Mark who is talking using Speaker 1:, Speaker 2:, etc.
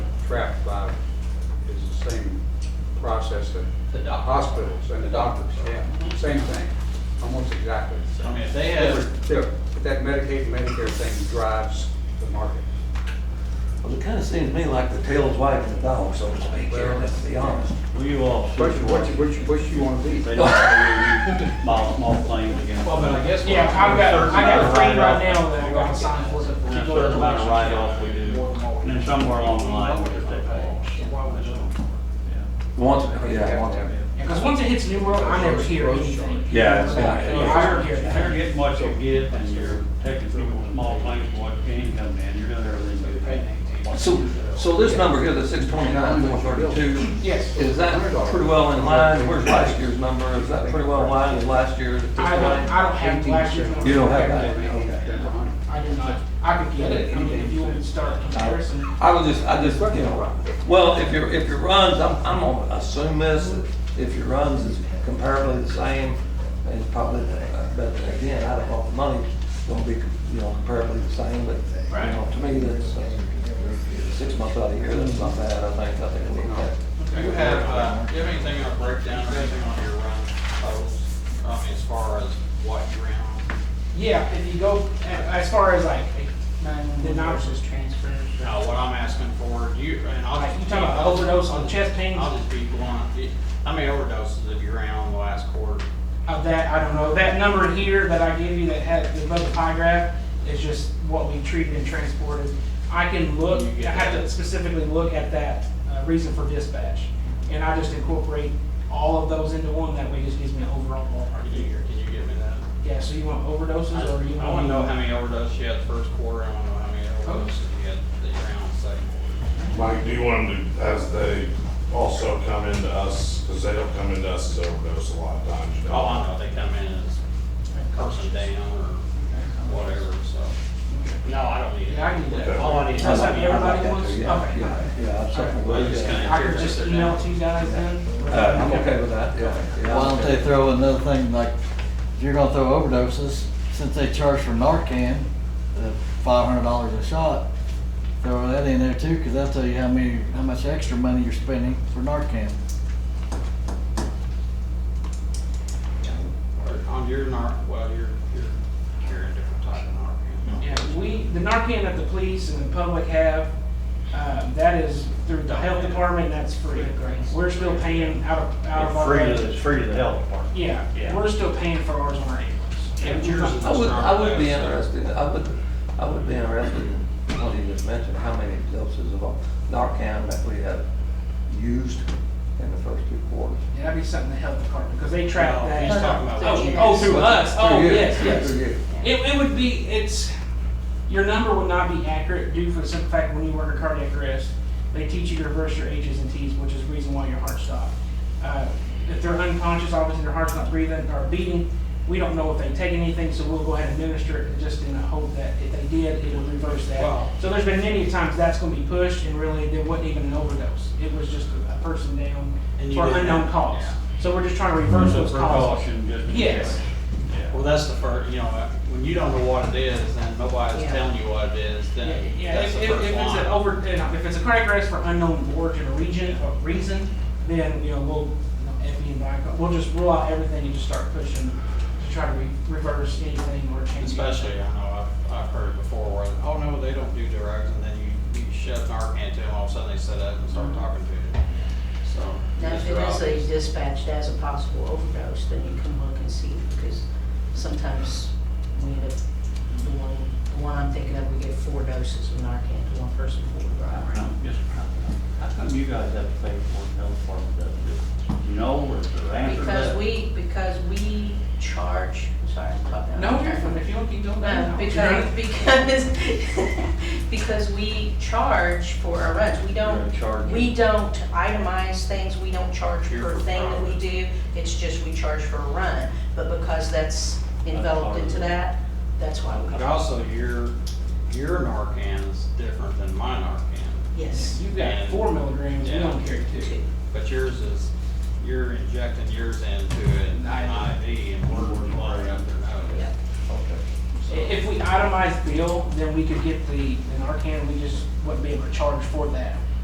Speaker 1: trapped by is the same process that
Speaker 2: The doctor.
Speaker 1: hospitals and the doctors, yeah, same thing, almost exactly.
Speaker 2: I mean, if they have,
Speaker 1: Different- But that Medicaid, Medicare thing drives the market.
Speaker 3: Well, it kinda seems to me like the tail's wagging the dog, so to speak, here, let's be honest.
Speaker 4: Will you all
Speaker 1: What
Speaker 4: switch
Speaker 1: you, what
Speaker 4: watches?
Speaker 1: you, what you, what you wanna be?
Speaker 4: They don't have to read small, small claims again.
Speaker 2: well, but I guess.
Speaker 5: Yeah, I've got, I got a friend right now that I got a sign for.
Speaker 4: And a certain amount of write-off we do, and
Speaker 2: Mm-hmm.
Speaker 4: then somewhere along the line, we just take calls.
Speaker 3: Once, yeah, once.
Speaker 5: Because once it hits New World, I never hear anything.
Speaker 4: Yeah,
Speaker 3: it's
Speaker 5: Yeah,
Speaker 3: not-
Speaker 5: I never hear
Speaker 4: If
Speaker 5: anything.
Speaker 4: you're getting what you get, and you're taking people's small claims, for what gain coming in, you're doing everything good.
Speaker 3: So, so this number here, the six twenty-nine, four thirty-two,
Speaker 5: Yes.
Speaker 3: is that pretty well in line? Where's last year's number? Is that pretty well in line with last year's? at this
Speaker 5: I don't,
Speaker 3: point?
Speaker 5: I don't have last year's. one.
Speaker 3: You don't have that? Okay.
Speaker 5: I do not. I could get it. I mean, if you want to start comparison.
Speaker 3: I was just, I just, you know, well, if your, if your runs, I'm, I'm gonna assume this, that if your runs is comparably the same, it's probably, uh, but again, I don't know if the money's gonna be, you know, comparably the same, but, you know, to me, that's, uh, six months out of the year, that's not bad, I think, I think it'll be okay.
Speaker 2: Do you have, uh, do you have anything on breakdown or anything on your run totals? I mean, as far as what you ran on?
Speaker 5: Yeah, if you go, a- as far as like, the novices transfer.
Speaker 2: No, what I'm asking for, do you, and I'll.
Speaker 5: Like,
Speaker 2: just
Speaker 5: you
Speaker 2: be-
Speaker 5: talking about overdose on chest pains?
Speaker 2: I'll just be blunt. Do you- How many overdoses have you ran on the last quarter?
Speaker 5: Of that, I don't know. That number here that I gave you that had the above the pie graph is just what we treated and transported. I can look,
Speaker 2: You
Speaker 5: I
Speaker 2: get
Speaker 5: have
Speaker 2: that.
Speaker 5: to specifically look at that uh, reason for dispatch. And I just incorporate all of those into one. That way it just gives me an overall ballpark
Speaker 2: Can you,
Speaker 5: figure.
Speaker 2: can you give me that?
Speaker 5: Yeah, so you want overdoses or you want?
Speaker 2: I wanna know how many overdoses you had the first quarter, I wanna know how many overdoses you had that you ran on the second quarter.
Speaker 6: Mike, do you want them to, as they also come into us, because they don't come into us as overdose a lot of times, you know?
Speaker 2: Oh, I know, they come in as person down or whatever, so. No, I don't need it.
Speaker 5: Yeah, I need that.
Speaker 2: All I need is.
Speaker 5: That's how
Speaker 3: I like
Speaker 5: everybody
Speaker 3: that
Speaker 5: wants?
Speaker 3: too,
Speaker 5: Okay.
Speaker 3: Yeah, yeah, yeah, I'm certainly
Speaker 2: I'm
Speaker 3: with
Speaker 2: just
Speaker 3: you.
Speaker 2: kinda
Speaker 5: I could
Speaker 2: curious
Speaker 5: just
Speaker 2: if they're
Speaker 5: email
Speaker 2: not-
Speaker 5: to you guys then?
Speaker 3: Uh, I'm okay with that, yeah. yeah,
Speaker 7: Why don't they throw another thing, like, if you're gonna throw overdoses, since they charge for Narcan, uh, five hundred dollars a shot, throw that in there too, cause that'll tell you how many, how much extra money you're spending for Narcan.
Speaker 2: Or On your nar, well, you're, you're carrying a different type of narcan.
Speaker 5: Yeah, we, the Narcan that the police and the public have, um, that is through the health department, that's free. We're still paying out of, out of
Speaker 4: It's
Speaker 5: our.
Speaker 4: free to, it's free to the health department.
Speaker 5: Yeah,
Speaker 4: Yeah.
Speaker 5: we're still paying for ours on our
Speaker 2: And
Speaker 5: ambulance.
Speaker 2: yours is
Speaker 3: I would, I would be
Speaker 2: not less, so-
Speaker 3: interested, I would, I would be interested in what you just mentioned, how many doses of Narcan that we have used in the first two quarters.
Speaker 5: Yeah, that'd be something the health department, because they track
Speaker 2: No,
Speaker 5: that.
Speaker 2: he's talking about-
Speaker 5: Oh, oh, through us, oh,
Speaker 3: Through you,
Speaker 5: yes, yes.
Speaker 3: through you.
Speaker 5: It, it would be, it's, your number would not be accurate due for the simple fact when you work a cardiac arrest, they teach you to reverse your H's and T's, which is the reason why your heart stopped. Uh, If they're unconscious, obviously their heart's not breathing or beating. We don't know if they take anything, so we'll go ahead and administer it just in the hope that if they did, it would reverse that.
Speaker 2: Wow.
Speaker 5: So there's been many times that's gonna be pushed and really there wasn't even an overdose. It was just a- a person down
Speaker 2: And you
Speaker 5: for
Speaker 2: did
Speaker 5: unknown
Speaker 2: that,
Speaker 5: cause.
Speaker 2: yeah.
Speaker 5: So we're just trying to reverse
Speaker 4: So
Speaker 5: those causes.
Speaker 4: precaution, just. in
Speaker 5: Yes.
Speaker 4: case. Yeah.
Speaker 2: Well, that's the first, you know, uh, when you don't know what it is, and nobody's
Speaker 8: Yeah.
Speaker 2: telling you what it is, then
Speaker 5: Yeah,
Speaker 2: that's
Speaker 5: if,
Speaker 2: the
Speaker 5: if, if
Speaker 2: first
Speaker 5: it's an
Speaker 2: line.
Speaker 5: over, you know, if it's a cardiac arrest for unknown origin or region, or reason, then, you know, we'll, you know, E if we invite- we'll just rule out everything and just start pushing to try to re- reverse anything or change.
Speaker 2: Especially, I know, I've, I've heard before where, oh, no, they don't do drugs, and then you, you shove Narcan to them, all of a sudden they sit up and start talking to you. So.
Speaker 8: Now, if
Speaker 2: just
Speaker 8: it
Speaker 2: drop
Speaker 8: is
Speaker 2: it.
Speaker 8: a dispatched as a possible overdose, then you can look and see, because sometimes we end up, the one, the one I'm thinking of, we get four doses of Narcan to one person, four to
Speaker 4: Now,
Speaker 8: another.
Speaker 4: just How how come you guys have to pay for it, the health department doesn't do it? You know, or the answer to that?
Speaker 8: Because we, because we charge, I'm sorry, I'm talking. out
Speaker 5: No,
Speaker 8: of
Speaker 5: you're
Speaker 8: turn.
Speaker 5: fine, if you don't keep doing
Speaker 8: No,
Speaker 5: that.
Speaker 8: because, because, because we charge for our runs, we
Speaker 4: You're
Speaker 8: don't,
Speaker 4: in charge.
Speaker 8: we don't itemize things, we don't charge
Speaker 2: You're
Speaker 8: per
Speaker 2: for
Speaker 8: thing that we
Speaker 2: profit.
Speaker 8: do, it's just we charge for a run, but because that's enveloped
Speaker 4: part of
Speaker 8: into
Speaker 4: it.
Speaker 8: that, that's why we
Speaker 2: But
Speaker 8: charge.
Speaker 2: also, your, your Narcan is different than my Narcan,
Speaker 8: Yes.
Speaker 5: You've got four milligrams, we don't carry two.
Speaker 2: but yours is, you're injecting yours into an IV, and we're blowing up their nose.
Speaker 8: Yeah.
Speaker 5: I- If we itemize bill, then we could get the, in our can, we just wouldn't be able to charge for that.